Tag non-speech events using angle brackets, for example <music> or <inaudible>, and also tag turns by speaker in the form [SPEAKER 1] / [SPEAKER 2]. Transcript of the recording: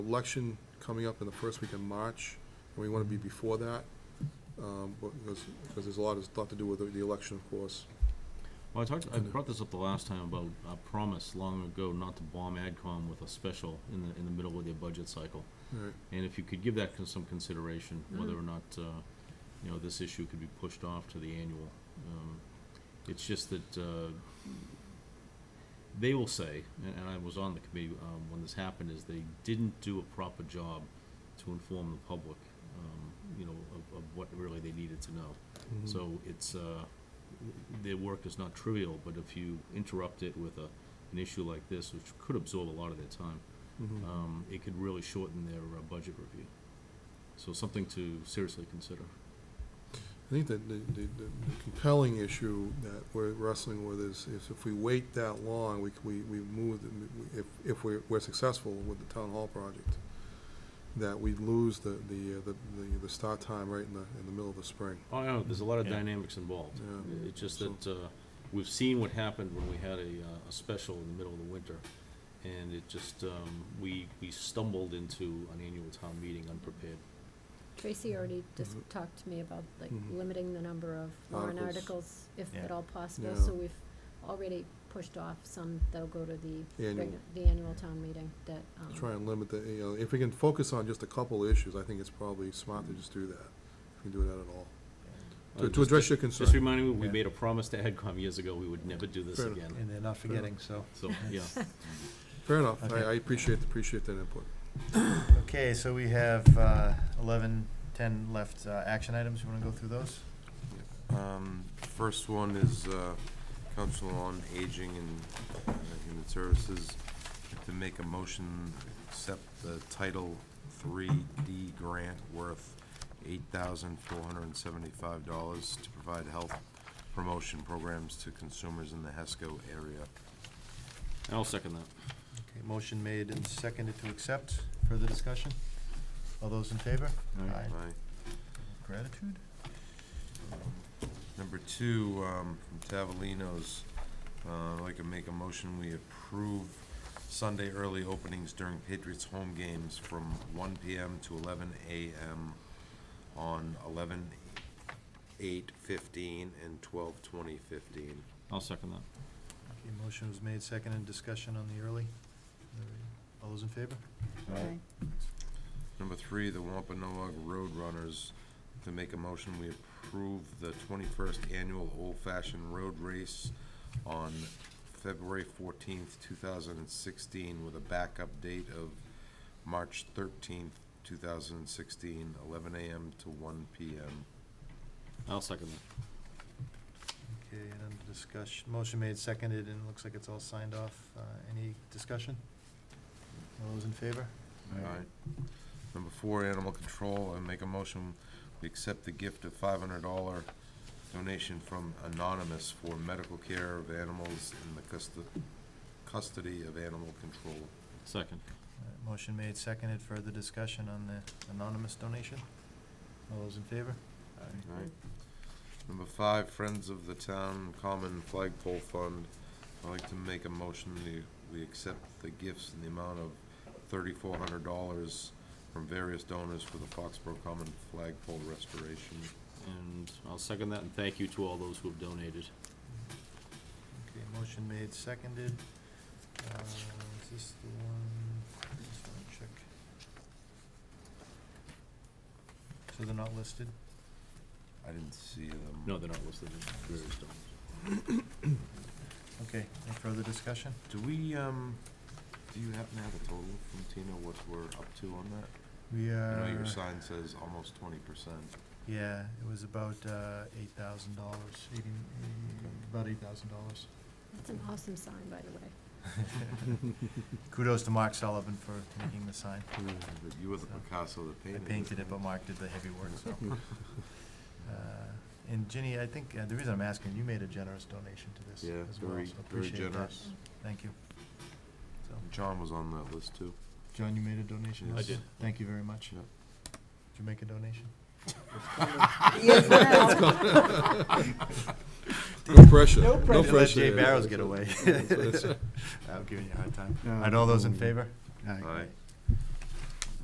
[SPEAKER 1] election coming up in the first week in March, and we want to be before that, um, because, because there's a lot, it's a lot to do with the- the election, of course.
[SPEAKER 2] Well, I talked, I
[SPEAKER 1] Kinda.
[SPEAKER 2] brought this up the last time about a promise long ago not to bomb AdCom with a special in the, in the middle of their budget cycle.
[SPEAKER 1] All right,
[SPEAKER 2] And if you could give that con- some consideration, whether or not, uh, you know, this issue could be pushed off to the annual. Um, It's just that, uh, they will say, and, and I was on the committee, um, when this happened, is they didn't do a proper job to inform the public, um, you know, of, of what really they needed to know.
[SPEAKER 1] Mm-hmm.
[SPEAKER 2] So it's, uh, their work is not trivial, but if you interrupt it with a, an issue like this, which could absorb a lot of their time,
[SPEAKER 1] Mhm.
[SPEAKER 2] um, it could really shorten their uh, budget review. So something to seriously consider.
[SPEAKER 1] I think that the, the the compelling issue that we're wrestling with is, is if we wait that long, we, c- we, we move, the- if, if we're, we're successful with the town hall project, that we lose the, the, uh, the, the- the start time right in the, in the middle of the spring.
[SPEAKER 2] Oh, no, there's a lot of
[SPEAKER 3] Yeah.
[SPEAKER 2] dynamics involved.
[SPEAKER 1] Yeah.
[SPEAKER 2] It's just
[SPEAKER 1] So-
[SPEAKER 2] that, uh, we've seen what happened when we had a, uh, a special in the middle of the winter. And it just, um, we, we stumbled into an annual town meeting unprepared.
[SPEAKER 4] Tracy already just
[SPEAKER 1] Mhm.
[SPEAKER 4] talked to me about like
[SPEAKER 1] Mhm.
[SPEAKER 4] limiting the number of warrant
[SPEAKER 1] Articles.
[SPEAKER 4] articles, if at
[SPEAKER 3] Yeah.
[SPEAKER 4] all possible,
[SPEAKER 1] Yeah.
[SPEAKER 4] so we've already pushed off some that'll go to the,
[SPEAKER 1] Annual.
[SPEAKER 4] regu- the annual town meeting that, um.
[SPEAKER 1] Try and limit the, you know, if we can focus on just a couple of issues, I think it's probably smart to just do that, if we can do that at all. To,
[SPEAKER 2] Uh,
[SPEAKER 1] to
[SPEAKER 2] just-
[SPEAKER 1] address your
[SPEAKER 2] Just
[SPEAKER 1] concern.
[SPEAKER 2] reminding me, we
[SPEAKER 3] Yeah.
[SPEAKER 2] made a promise to AdCom years ago, we would never do this
[SPEAKER 1] Fair
[SPEAKER 2] again.
[SPEAKER 3] And they're not forgetting, so.
[SPEAKER 2] So, yeah.
[SPEAKER 1] Fair enough, I,
[SPEAKER 3] Okay.
[SPEAKER 1] I appreciate, appreciate that input.
[SPEAKER 3] Okay, so we have uh, eleven, ten left uh, action items. You want to go through those?
[SPEAKER 5] Um, First one is uh, Council on Aging and uh, Human Services to make a motion, accept the Title Three D grant worth eight thousand four hundred and seventy-five dollars to provide health promotion programs to consumers in the HESCO area.
[SPEAKER 2] I'll second that.
[SPEAKER 3] Okay, motion made and seconded to accept. Further discussion? All those in favor?
[SPEAKER 2] Aye.
[SPEAKER 5] Aye.
[SPEAKER 3] Gratitude?
[SPEAKER 5] Number two, um, from Tavolino's, uh, I'd like to make a motion, we approve Sunday early openings during Patriots home games from one PM to eleven AM on eleven eight fifteen and twelve twenty fifteen.
[SPEAKER 2] I'll second that.
[SPEAKER 3] Okay, motion was made, seconded, discussion on the early. All those in favor?
[SPEAKER 4] Okay.
[SPEAKER 5] Number three, the Wampanoag Road Runners, to make a motion, we approve the twenty-first annual Old Fashioned Road Race on February fourteenth, two thousand and sixteen, with a backup date of March thirteenth, two thousand and sixteen, eleven AM to one PM.
[SPEAKER 2] I'll second that.
[SPEAKER 3] Okay, and under discussion, motion made, seconded, and it looks like it's all signed off. Uh, Any discussion? All those in favor?
[SPEAKER 5] Alright. Number four, animal control, I make a motion, we accept the gift of five hundred dollar donation from Anonymous for medical care of animals in the custo- custody of animal control.
[SPEAKER 2] Second.
[SPEAKER 3] Alright, Motion made, seconded, further discussion on the anonymous donation? All those in favor?
[SPEAKER 5] Alright. Number five, Friends of the Town Common Flagpole Fund, I'd like to make a motion, we, we accept the gifts in the amount of thirty-four hundred dollars from various donors for the Foxborough Common Flagpole Restoration.
[SPEAKER 2] And I'll second that, and thank you to all those who have donated.
[SPEAKER 3] Okay, motion made, seconded. Uh, Is this the one? Just wanna check. So they're not listed?
[SPEAKER 5] I didn't see them.
[SPEAKER 2] No, they're not listed. Various donors.
[SPEAKER 3] Okay, any further discussion?
[SPEAKER 5] Do we, um, do you happen to have a total from Tina, what we're up to on that?
[SPEAKER 3] We uh, are.
[SPEAKER 5] I know your sign says almost twenty percent.
[SPEAKER 3] Yeah, it was about uh, eight thousand dollars, eighteen, about eight thousand dollars.
[SPEAKER 4] That's an awesome sign, by the way.
[SPEAKER 3] Kudos to Mark Sullivan for making the sign.
[SPEAKER 5] But you were the
[SPEAKER 3] So-
[SPEAKER 5] Picasso that
[SPEAKER 3] I
[SPEAKER 5] painted it.
[SPEAKER 3] painted it, but Mark did the heavy work, so. Uh, And Ginny, I think, uh, the reason I'm asking, you made a generous donation to this
[SPEAKER 5] Yeah,
[SPEAKER 3] as well,
[SPEAKER 5] very,
[SPEAKER 3] so
[SPEAKER 5] very
[SPEAKER 3] appreciate that.
[SPEAKER 5] generous.
[SPEAKER 3] Thank you. So,
[SPEAKER 5] John was on that list too.
[SPEAKER 3] John, you made a donation?
[SPEAKER 5] Yes. I
[SPEAKER 3] also?
[SPEAKER 2] did.
[SPEAKER 3] Thank you very much.
[SPEAKER 5] Yeah.
[SPEAKER 3] Did you make a donation?
[SPEAKER 1] <laughs>
[SPEAKER 3] <laughs>
[SPEAKER 1] No pressure,
[SPEAKER 3] No
[SPEAKER 1] no
[SPEAKER 3] Let Jay
[SPEAKER 1] pressure.
[SPEAKER 3] Barrows get away. <laughs>
[SPEAKER 1] That's- that's-
[SPEAKER 3] I'm giving you a hard time. All right, all those in favor?
[SPEAKER 5] Aye.